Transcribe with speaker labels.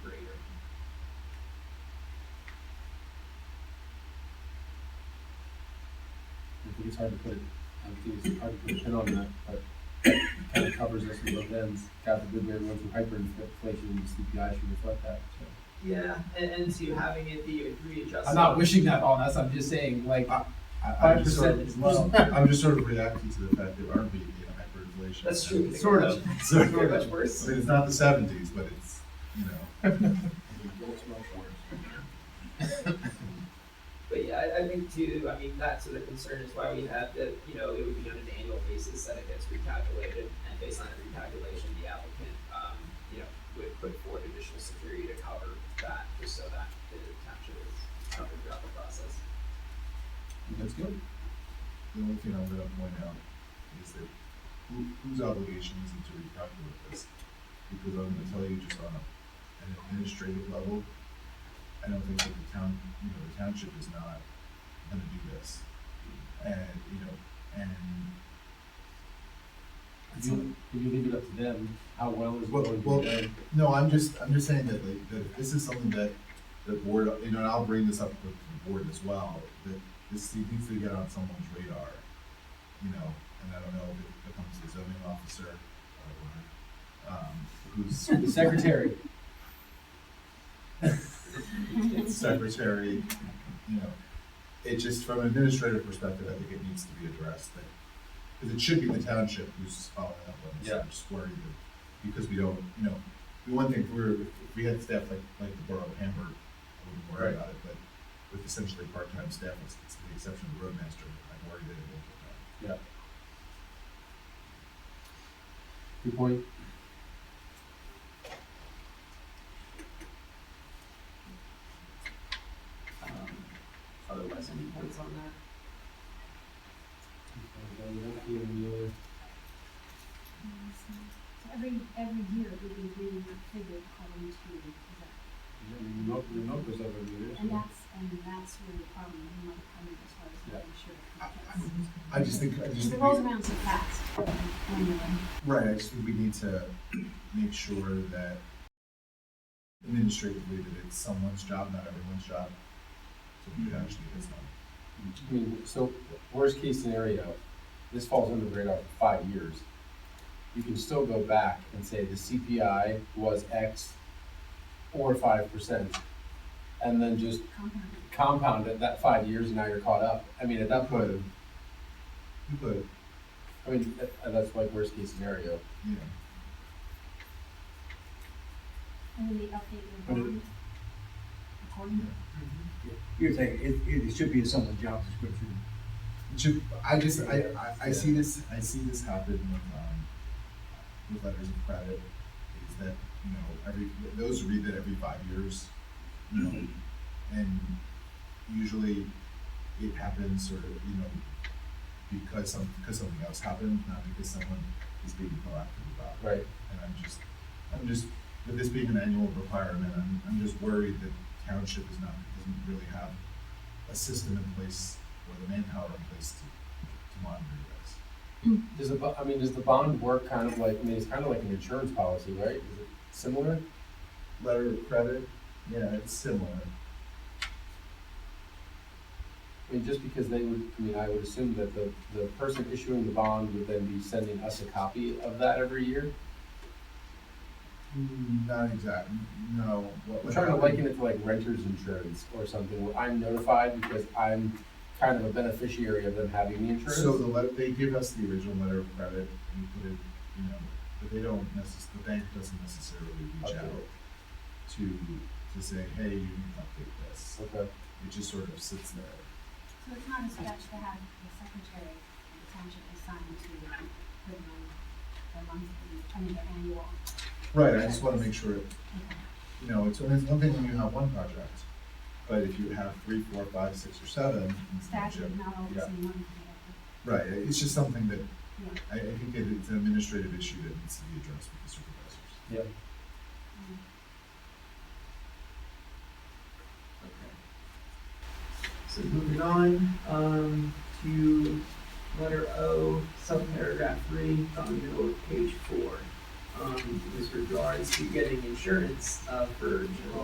Speaker 1: think it's hard to put, I think it's hard to put a pin on that, but it kind of covers us in both ends. God forbid we ever went through hyperinflation and the CPI should reflect that, so.
Speaker 2: Yeah, and, and so having it be readjusted.
Speaker 3: I'm not wishing that on us, I'm just saying, like,
Speaker 4: I,
Speaker 3: five
Speaker 4: I'm just sort
Speaker 3: percent is
Speaker 4: of,
Speaker 3: low.
Speaker 4: I'm just sort of reacting to the fact that aren't we in hyperinflation?
Speaker 2: That's true.
Speaker 3: Sort of.
Speaker 4: So, I
Speaker 2: It's
Speaker 4: mean,
Speaker 2: very much worse.
Speaker 4: it's not the seventies, but it's, you know.
Speaker 2: But yeah, I, I think too, I mean, that sort of concern is why we have that, you know, it would be on an annual basis that it gets recalculated. And based on the recalculation, the applicant, um, you know, would put forward additional security to cover that, just so that the township is covered throughout the process.
Speaker 1: That's good.
Speaker 4: The only thing I'm gonna point out is that who, whose obligation is it to recalculate this? Because I'm gonna tell you just on a, an administrative level, I don't think that the town, you know, the township is not gonna do this. And, you know, and
Speaker 1: If you, if you leave it up to them, how well is it
Speaker 4: Well,
Speaker 1: going to be
Speaker 4: well,
Speaker 1: done?
Speaker 4: No, I'm just, I'm just saying that like, that this is something that the board, you know, and I'll bring this up with the board as well, that this needs to get on someone's radar. You know, and I don't know if it becomes the zoning officer or, um, who's
Speaker 1: The secretary,
Speaker 4: secretary, you know. It just, from an administrative perspective, I think it needs to be addressed that, because it should be the township who's following up on this,
Speaker 1: Yeah.
Speaker 4: or squaring it. Because we don't, you know, the one thing, if we were, if we had staff like, like the borough of Hamburg, I wouldn't worry about it, but with essentially part-time staff, with with the exception of the roadmaster, I'm worried that it won't get done.
Speaker 1: good point.
Speaker 2: Um, otherwise, any points on that?
Speaker 5: So Every, every year we redo the figure according to, the-
Speaker 1: Remote, remote was over here.
Speaker 5: and that's, and that's where the problem might come in as far as making sure. it fits.
Speaker 4: I just think, I just
Speaker 5: Because it
Speaker 4: think,
Speaker 5: rolls
Speaker 4: we-
Speaker 5: around so fast when you're in.
Speaker 4: right, I just think we need to make sure that administratively that it's someone's job, not everyone's job. So we actually, it's not.
Speaker 1: I mean, so worst case scenario, this falls under the radar for five years. You can still go back and say the CPI was X or five percent. And then just
Speaker 5: compound.
Speaker 1: compound it that five years and now you're caught up. I mean, at that point,
Speaker 4: Could. You could,
Speaker 1: I mean, that- that's like worst case scenario.
Speaker 4: you know,
Speaker 5: And then they update your
Speaker 6: But it-
Speaker 5: bond according to.
Speaker 6: You're saying it, it, it should be in someone's job description.
Speaker 4: it should, I just, I, I, I see this, I see this happen with, um, with letters of credit, is that, you know, every, those read that every five years, you know, and usually it happens sort of, you know, because some, because something else happened, not because someone is being proactive about it.
Speaker 1: Right.
Speaker 4: And I'm just, I'm just, with this being an annual requirement, I'm, I'm just worried that township is not, doesn't really have a system in place or the manpower in place to, to monitor this.
Speaker 1: Does the, bo- I mean, does the bond work kind of like, I mean, it's kind of like an insurance policy, right? Is it similar?
Speaker 4: Letter of credit, yeah, it's similar.
Speaker 1: I mean, just because they would, I mean, I would assume that the, the person issuing the bond would then be sending us a copy of that every year?
Speaker 4: Hmm, Not exact, no. what
Speaker 1: I'm
Speaker 4: would
Speaker 1: Mm-hmm. trying to
Speaker 4: happen-
Speaker 1: liken it to like renter's insurance or something, where I'm notified because I'm kind of a beneficiary of them having the insurance.
Speaker 4: So the let, they give us the original letter of credit and we put it, you know, but they don't necess, the bank doesn't necessarily reach
Speaker 1: Okay.
Speaker 4: out to, to say, hey, you need to update this.
Speaker 1: Okay,
Speaker 4: It just sort of sits there.
Speaker 5: So it's not a stretch to have the secretary of the township assigned to the, the monthly, I mean, the annual.
Speaker 4: Right, I just wanna make sure,
Speaker 5: Okay.
Speaker 4: you know, it's, it's one thing when you have one project, but if you have three, four, five, six, or seven. it's not
Speaker 5: Staff
Speaker 4: ju-
Speaker 5: is not always
Speaker 4: Yeah.
Speaker 5: in one.
Speaker 4: Right, it's just something that,
Speaker 5: Yeah.
Speaker 4: I, I think it- it's an administrative issue that needs to be addressed with the supervisors.
Speaker 5: um,
Speaker 2: Okay. So moving on, um, to letter O, subparagraph three, on the middle of page four. Um, with regards to getting insurance, uh, for general